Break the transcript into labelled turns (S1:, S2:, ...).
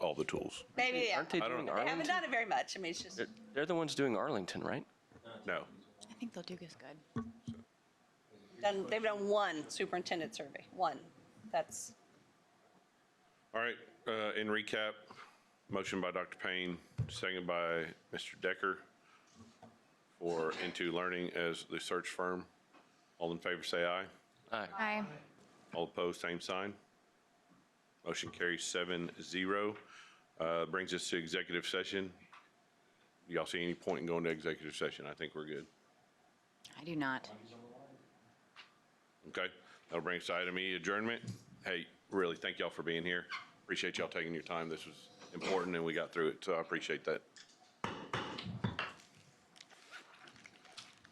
S1: all the tools.
S2: Maybe, yeah.
S3: Aren't they
S1: I don't
S3: doing
S1: know.
S2: They haven't
S3: Arlington?
S2: done it very much. I mean, it's just,
S3: They're, they're the ones doing Arlington, right?
S1: No.
S4: I think they'll do this good.
S2: done, they've done one superintendent survey, one. That's,
S1: All right, uh, in recap, motion by Dr. Payne, second by Mr. Decker for Into Learning as the search firm. All in favor, say aye.
S3: Aye.
S4: Aye.
S1: All opposed, same sign. Motion carries seven zero. Uh, Brings us to executive session. Y'all see any point in going to executive session? I think we're good.
S4: I do not.
S1: Okay, that'll bring us to item E, adjournment. Hey, really, thank y'all for being here. Appreciate y'all taking your time. This was important and we got through it, so I appreciate that.